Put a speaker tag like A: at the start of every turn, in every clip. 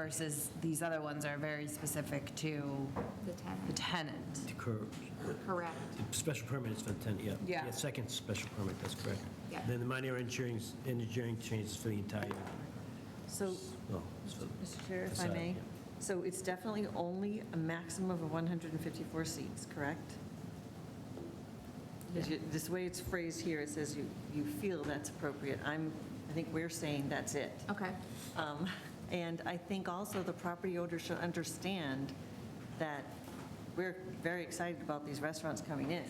A: versus these other ones are very specific to
B: The
A: the
B: tenant,
A: tenant.
C: Cor-
B: correct.
C: the Special permit is for the tenant, yeah.
A: Yeah.
C: Second special permit, that's correct.
B: Yeah.
C: Then the minor engineering, engineering changes for the entire,
D: So,
C: well, it's for the-
D: Mr. Chair, if I
C: Aside,
D: may,
C: yeah.
D: so it's definitely only a maximum of 154 seats, correct? 'Cause you- This way it's phrased here, it says you, you feel that's appropriate. I'm, I think we're saying that's it.
B: Okay,
D: Um, And I think also the property owner should understand that we're very excited about these restaurants coming in,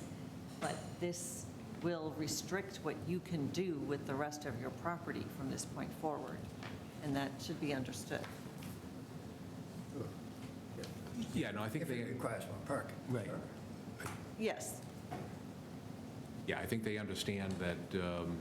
D: but this will restrict what you can do with the rest of your property from this point forward, and that should be understood.
E: Yeah, no, I think
F: If
E: they,
F: it requires one parking.
C: Right.
D: Yes,
E: yeah, I think they understand that um,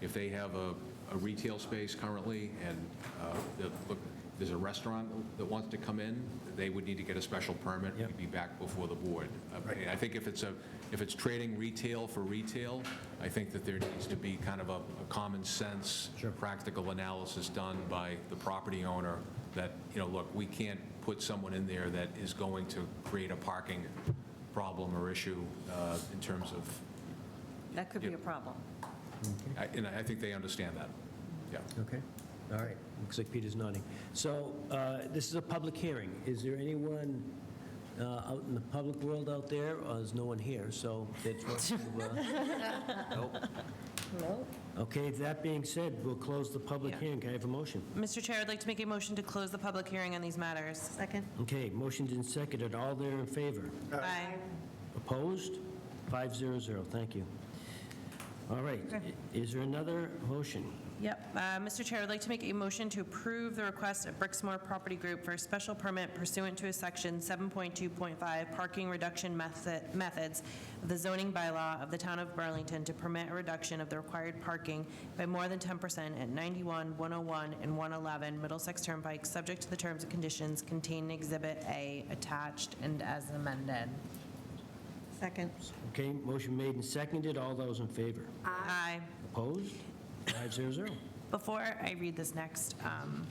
E: if they have a a retail space currently and uh, the- look, there's a restaurant that wants to come in, they would need to get a special permit.
C: Yep.
E: We'd be back before the board. Uh,
F: Right.
E: I think if it's a, if it's trading retail for retail, I think that there needs to be kind of a a common sense,
C: Sure.
E: practical analysis done by the property owner that, you know, look, we can't put someone in there that is going to create a parking problem or issue uh, in terms of
D: that could be a problem.
E: I- And I think they understand that, yeah.
C: Okay, all right, looks like Peter's nodding. So uh, this is a public hearing. Is there anyone uh, out in the public world out there, or is no one here? So that's what, uh, nope. Okay, that being said, we'll close the public
G: Yeah.
C: hearing. Can I have a motion?
G: Mr. Chair, I'd like to make a motion to close the public hearing on these matters.
D: Second?
C: Okay, motion's been seconded. All there in favor?
G: Aye.
C: Opposed? 500, thank you. All right, i- is there another motion?
G: Yep. Uh, Mr. Chair, I'd like to make a motion to approve the request of Brixmore Property Group for a special permit pursuant to a section 7.2.5 parking reduction method- methods of the zoning bylaw of the town of Burlington to permit a reduction of the required parking by more than 10% at 91, 101, and 111 Middlesex Turnpike, subject to the terms and conditions contained in Exhibit A attached and as amended.
D: Second.
C: Okay, motion made and seconded. All those in favor?
G: Aye.
C: Opposed? 500.
G: Before I read this next um,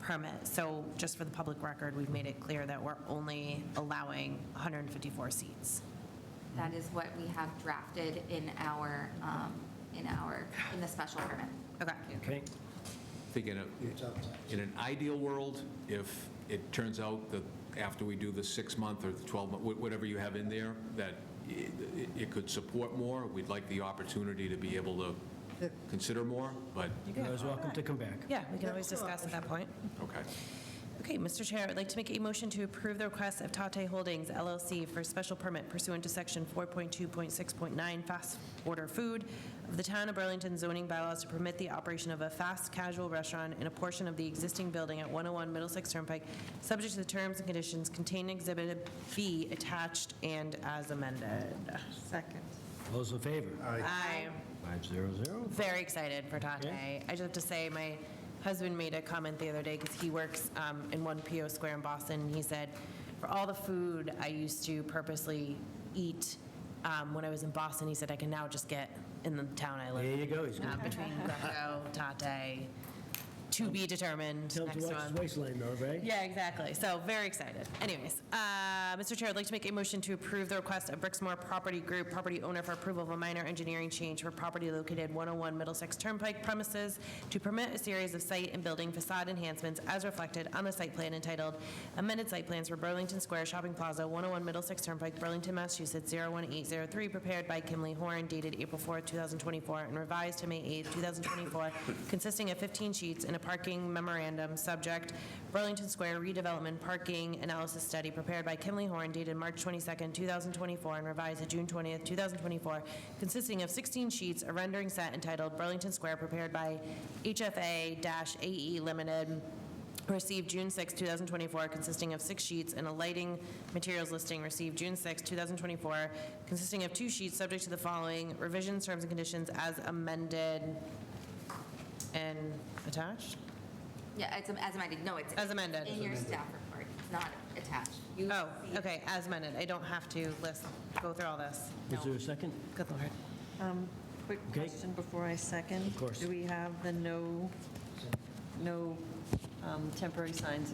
G: permit, so just for the public record, we've made it clear that we're only allowing 154 seats.
B: that is what we have drafted in our, um, in our, in the special permit.
G: Okay.
C: Okay,
E: I think in a, in an ideal world, if it turns out that after we do the six-month or the 12-month, wh- whatever you have in there, that it- it it could support more, we'd like the opportunity to be able to consider more, but,
C: you're always welcome to come back.
G: Yeah, we can always discuss at that point.
E: okay.
G: Okay, Mr. Chair, I'd like to make a motion to approve the request of Tate Holdings LLC for special permit pursuant to Section 4.2.6.9 fast order food of the Town of Burlington zoning bylaws to permit the operation of a fast casual restaurant in a portion of the existing building at 101 Middlesex Turnpike, subject to the terms and conditions contained in Exhibit B attached and as amended.
D: Second.
C: Those in favor?
G: Aye.
C: 500.
G: Very excited for Tate.
C: Okay.
G: I just have to say, my husband made a comment the other day because he works um, in one PO square in Boston. and He said, for all the food I used to purposely eat um, when I was in Boston, he said, I can now just get in the town I
C: There
G: live
C: you go, he's
G: in,
C: going
G: uh, between Greco, Tate, to be determined
C: to tell him
G: next
C: to watch his
G: month.
C: waistline though, right?
G: Yeah, exactly. So very excited. Anyways, uh, Mr. Chair, I'd like to make a motion to approve the request of Brixmore Property Group, property owner for approval of a minor engineering change for property located 101 Middlesex Turnpike premises to permit a series of site and building facade enhancements as reflected on the site plan entitled amended site plans for Burlington Square Shopping Plaza, 101 Middlesex Turnpike, Burlington, Massachusetts, 01803, prepared by Kim Lee Horn, dated April 4th, 2024, and revised to May 8th, 2024, consisting of 15 sheets and a parking memorandum, subject Burlington Square redevelopment parking analysis study, prepared by Kim Lee Horn, dated March 22nd, 2024, and revised to June 20th, 2024, consisting of 16 sheets, a rendering set entitled Burlington Square, prepared by HFA-AE E Limited, received June 6, 2024, consisting of six sheets, and a lighting materials listing received June 6, 2024, consisting of two sheets, subject to the following revisions, terms, and conditions as amended and attached?
B: Yeah, it's as amended, no, it's
G: As amended.
B: in your staff report, it's not attached. You
G: Oh,
B: see it.
G: okay, as amended. I don't have to list, go through all this.
C: Is there a second?
G: Good Lord.
D: Quick
C: Okay.
D: question before I second.
C: Of course.
D: Do we have the no, no um, temporary signs